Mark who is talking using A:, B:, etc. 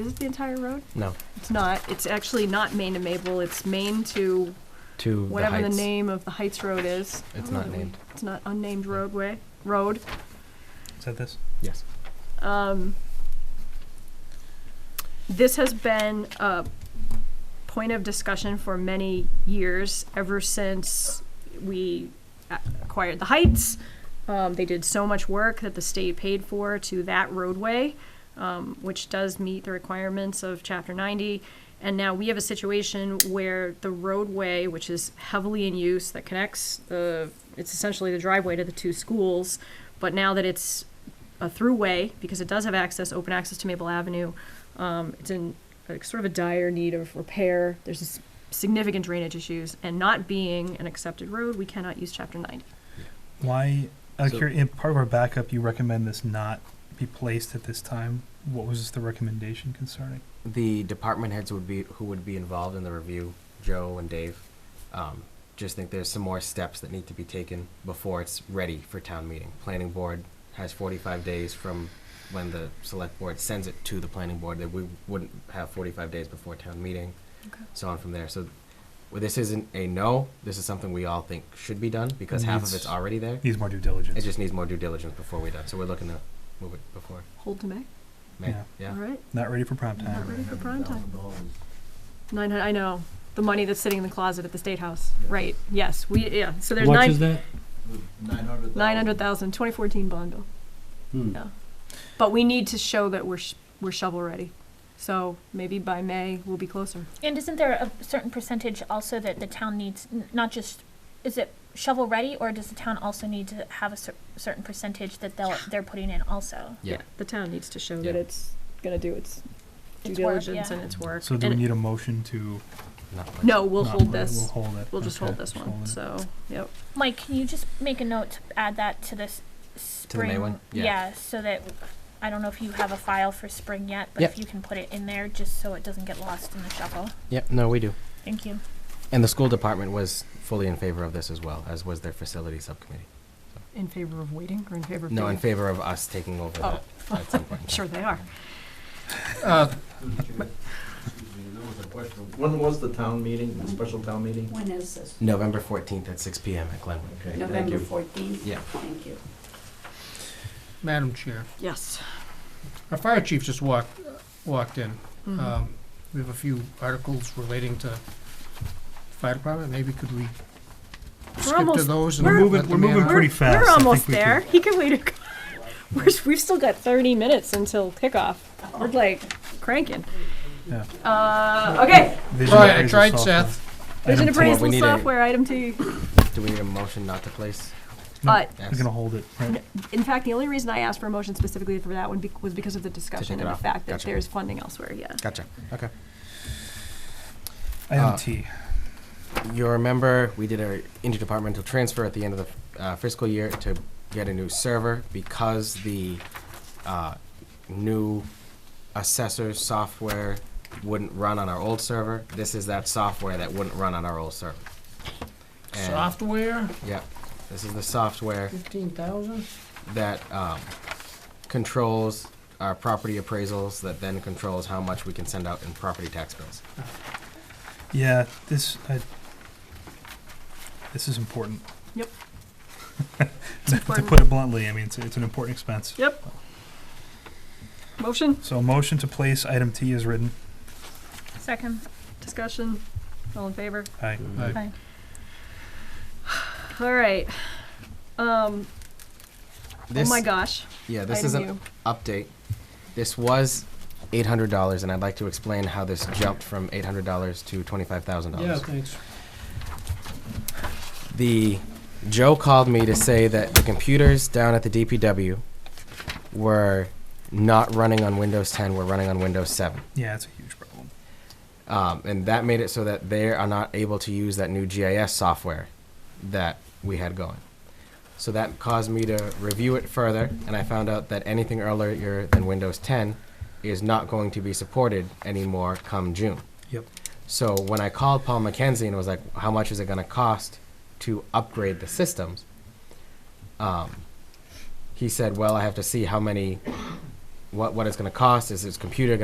A: Is it the entire road?
B: No,
A: It's not. It's actually not Main to Maple. It's Main to
B: to the
A: whatever the
B: Heights.
A: name of the Heights Road is.
B: It's
A: Oh,
B: not
A: that we-
B: named.
A: It's not unnamed roadway, road.
C: Is that this?
B: Yes.
A: Um, this has been a point of discussion for many years, ever since we a- acquired the Heights. Um, they did so much work that the state paid for to that roadway, um, which does meet the requirements of Chapter 90. And now we have a situation where the roadway, which is heavily in use, that connects the, it's essentially the driveway to the two schools, but now that it's a throughway because it does have access, open access to Maple Avenue. Um, it's in like, sort of a dire need of repair. There's s- significant drainage issues, and not being an accepted road, we cannot use Chapter 90.
C: Why, uh,
B: So-
C: curi- in part of our backup, you recommend this not be placed at this time. What was the recommendation concerning?
B: The department heads would be who would be involved in the review, Joe and Dave. Um, just think there's some more steps that need to be taken before it's ready for town meeting. Planning board has 45 days from when the select board sends it to the planning board. That we wouldn't have 45 days before town meeting,
A: Okay.
B: so on from there. So. Well, this isn't a no. This is something we all think should be done because
C: It
B: half of
C: needs-
B: it's already there.
C: Needs more due diligence.
B: It just needs more due diligence before we done. So we're looking to move it before
A: Hold to May.
B: May.
C: Yeah.
B: yeah.
A: All right.
C: Not ready for prime
A: Not
C: time.
A: ready for prime time. Nine. hun- I know the money that's sitting in the closet at the State House. Right. Yes. We. Yeah. So there's
D: What is
A: nine.
D: that?
E: Nine hundred.
A: Nine hundred thousand. Twenty fourteen bond bill.
D: Hmm.
A: Yeah. But we need to show that we're sh- we're shovel ready. So maybe by May we'll be closer.
F: And isn't there a certain percentage also that the town needs, n- not just, is it shovel ready, or does the town also need to have a cer- certain percentage that they'll, they're putting in also?
B: Yeah.
A: The town needs to show
B: Yeah.
A: that it's gonna do its due
F: Its work,
A: diligence
F: yeah.
A: and its work.
C: So do we
A: And-
C: need a motion to?
B: Not much.
A: Mm-hmm. No, we'll
C: not-
A: hold this.
C: We'll hold it.
A: We'll just
C: Okay,
A: hold this one,
C: hold it.
A: so, yep.
F: Mike, can you just make a note to add that to this
B: To the May
F: spring?
B: one? Yeah.
F: Yeah, so that, I don't know if you have a file for spring yet, but
B: Yep.
F: if you can put it in there, just so it doesn't get lost in the shovel.
B: Yep, no, we do.
F: Thank you.
B: And the school department was fully in favor of this as well, as was their facility subcommittee.
A: In favor of waiting or in favor of?
B: No, in
A: doing?
B: favor of us taking over
A: Oh.
B: that at some point. in time.
A: Sure they are.
E: When was the town meeting, the special town meeting?
G: When is this?
B: November 14th at 6 p.m. at Glenwood.
E: Okay, thank
G: November
E: you.
G: fourteenth?
B: Yeah.
G: Thank you.
D: Madam Chair,
A: Yes.
D: our fire chief just walked, walked in.
A: Mhm.
D: Um, We have a few articles relating to fire department, maybe could we
A: We're
D: skip to
A: almost,
D: those? and
C: We're
D: let
C: moving,
D: the
C: we're
D: man
C: moving
D: out?
C: pretty fast. I
A: we're
C: think
A: almost
C: we could-
A: there. He can wait. a- We're, s- we've still got thirty minutes until kickoff. We're like cranking.
C: Yeah.
A: Uh, okay,
C: Vision
D: All right, I
C: appraisal
D: tried
C: software.
D: Seth.
A: vision
C: Item two.
B: appraisal.
A: appraisal
B: need a-
A: software, item T.
B: Do we need a motion not to place?
C: No,
A: Uh,
C: We're gonna hold it, right?
A: In fact, the only reason I asked for a motion specifically for that one be- was because of the discussion
B: it
A: and the
B: off.
A: fact that
B: Gotcha.
A: there's funding elsewhere, yeah.
B: Gotcha. Okay.
C: Item
B: Uh,
C: T.
B: You remember we did a interdepartmental transfer at the end of the uh, fiscal year to get a new server because the uh, new assessor software wouldn't run on our old server. This is that software that wouldn't run on our old server. And-
D: Software,
B: Yep. This is the software
D: fifteen thousand?
B: that um, controls our property appraisals, that then controls how much we can send out in property tax bills.
C: Yeah, this, I, this is important.
A: Yep.
C: To put it bluntly, I mean, it's, it's an important expense.
A: Yep. Motion,
C: So a motion to place item T is written.
F: Second.
A: discussion, all in favor?
C: Aye.
F: Aye.
A: All right. Um, oh
B: This,
A: my gosh.
B: Yeah, this
A: item
B: is an
A: U.
B: update. This was eight hundred dollars, and I'd like to explain how this jumped from eight hundred dollars to twenty-five thousand
D: Yeah,
B: dollars.
D: thanks.
B: The Joe called me to say that the computers down at the DPW were not running on Windows 10, were running on Windows 7.
C: Yeah, it's a huge problem.
B: Um, and that made it so that they are not able to use that new GIS software that we had going. So that caused me to review it further, and I found out that anything earlier than Windows 10 is not going to be supported anymore come June.
C: Yep.
B: So when I called Paul McKenzie and was like, how much is it going to cost to upgrade the systems? Um, he said, well, I have to see how many, what, what it's going to cost. Is this computer